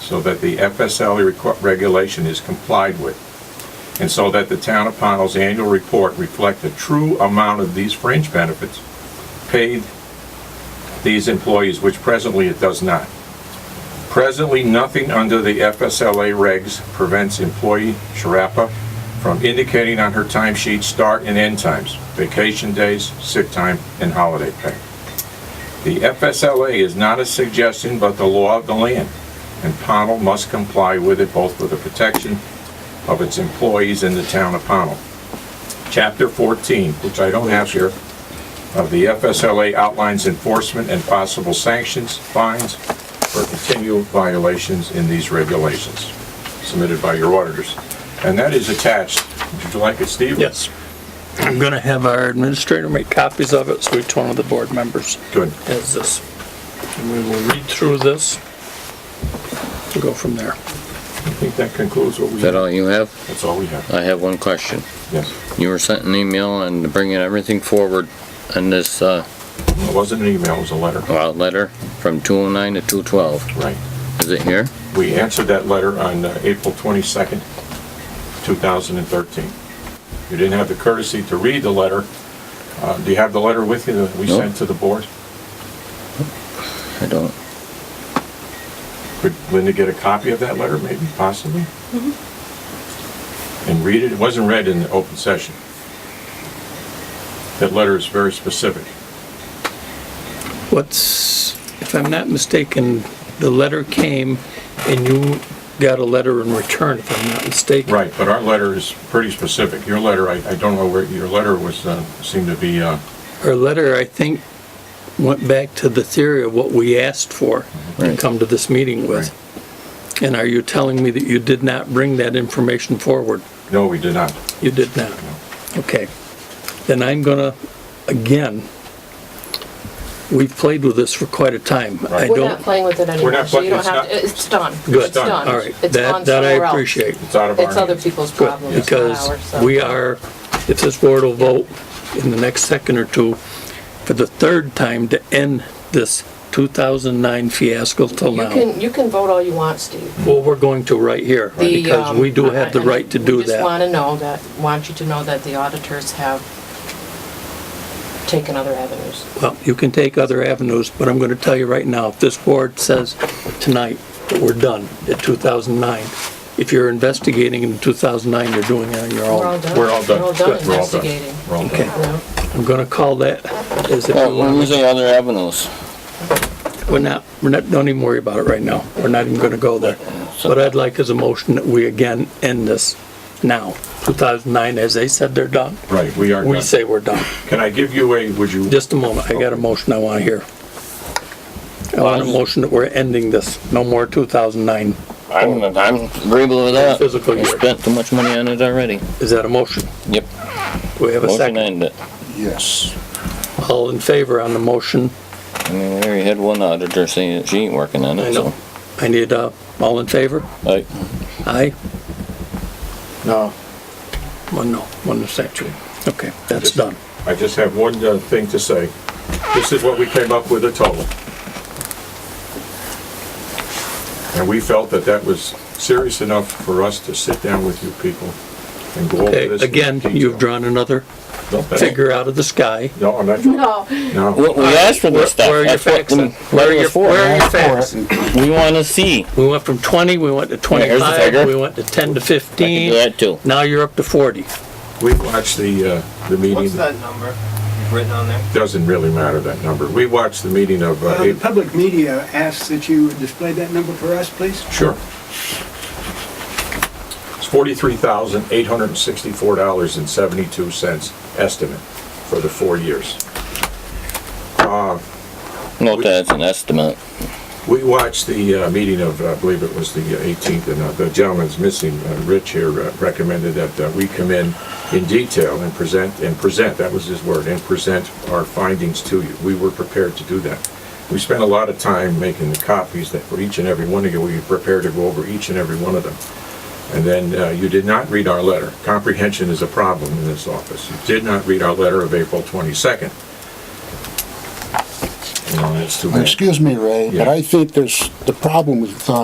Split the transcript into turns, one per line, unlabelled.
so that the FSLA requ- regulation is complied with, and so that the town of Pownell's annual report reflect the true amount of these fringe benefits paid these employees, which presently it does not. Presently, nothing under the FSLA regs prevents employee Sharapa from indicating on her timesheet start and end times, vacation days, sick time, and holiday pay. The FSLA is not a suggestion but the law of the land, and Pownell must comply with it both for the protection of its employees and the town of Pownell. Chapter 14, which I don't have here, of the FSLA outlines enforcement and possible sanctions, fines, for continual violations in these regulations submitted by your auditors. And that is attached. Would you like it, Steve?
Yes. I'm going to have our administrator make copies of it, so each one of the board members
Good.
has this. And we will read through this and go from there.
I think that concludes what we,
Is that all you have?
that's all we have.
I have one question.
Yes.
You were sent an email and bringing everything forward on this, uh,
It wasn't an email, it was a letter.
well, letter from 209 to 212.
Right.
Is it here?
We answered that letter on uh, April 22nd, 2013. You didn't have the courtesy to read the letter. Uh, Do you have the letter with you that we
No.
sent to the board?
I don't,
Could Linda get a copy of that letter, maybe, possibly? And read it? It wasn't read in the open session. That letter is very specific.
What's, if I'm not mistaken, the letter came and you got a letter in return, if I'm not mistaken.
Right, but our letter is pretty specific. Your letter, I I don't know where, your letter was, uh, seemed to be, uh,
Our letter, I think, went back to the theory of what we asked for and
Right.
come to this meeting with. And are you telling me that you did not bring that information forward?
no, we did not.
You did not? Okay. Then I'm gonna, again, we've played with this for quite a time. I
Right.
We're not
don't,
playing with it
We're
anymore,
not
so
playing-
you don't
it's
have, to-
not-
it's done.
Good.
It's
done.
done.
all right,
It's
that,
on
that I
somewhere else.
appreciate.
It's out of our
It's other
hands.
people's
Good,
problems, not ours,
because
so-
we are, if this board will vote in the next second or two, for the third time to end this 2009 fiasco till
You
now.
can, you can vote all you want, Steve.
Well, we're going to right here,
The,
because
um,
we do
I-
have the
I-
right to do
We just
that.
want to know that, want you to know that the auditors have taken other avenues.
Well, you can take other avenues, but I'm gonna tell you right now, if this board says tonight that we're done at 2009, if you're investigating in 2009, you're doing it on your
We're all
own.
done.
We're all done.
We're all done
Good. We're all done.
investigating.
We're all
Okay.
done.
You know?
I'm gonna call that as if
well, when
we're
was Oh, the other avenues?
not, we're not, don't even worry about it right now. We're not even gonna go there. What I'd like is a motion that we again end this now. 2009, as they said they're done,
Right, we are
we
done.
say we're done.
Can I give you a, would you?
Just a moment, I got a motion I want to hear. I want a motion that we're ending this, no more 2009.
I'm, Oh, I'm agreeable with that.
Physical
We
year.
spent too much money on it already.
Is that a motion?
Yep.
Do we have a
Motion to
second?
end it.
Yes.
All in favor on the motion?
I mean, we already had one auditor saying that she ain't working on
I
it, so. Uh,
know. I need, uh, all in favor?
Like,
Aye?
No.
One no, one abstention. Okay, that's done.
I just have one uh, thing to say. This is what we came up with a total. And we felt that that was serious enough for us to sit down with you people and go over
Okay,
this. in
again,
detail.
you've drawn another
No, that's-
figure out of the sky.
No, I'm not,
No,
no.
we we asked for
Where
this stuff.
where are your
That's what
facts?
the
then? Where are
letter
your,
was for.
where are your facts?
We wanna see.
We went from 20, we went to
here's the
25,
figure.
we went to 10 to
I can do
15.
that too.
Now you're up to 40.
We watched the, uh, the
What's
meeting,
that number you've written on there?
doesn't really matter that number. We watched the meeting of, uh,
The
April-
public media asks that you display that number for us, please.
sure. It's forty-three thousand, eight hundred and sixty-four dollars and seventy-two cents estimate for the four years.
Note that it's an estimate.
We watched the uh, meeting of, uh, I believe it was the 18th, and uh, the gentleman's missing, uh, Rich here uh, recommended that uh, we come in in detail and present, and present, that was his word, and present our findings to you. We were prepared to do that. We spent a lot of time making the copies that for each and every one of you, we were prepared to go over each and every one of them. And then uh, you did not read our letter. Comprehension is a problem in this office. You did not read our letter of April 22nd. You know, that's too bad.
Excuse me, Ray, but
Yeah.
I think there's, the problem with uh,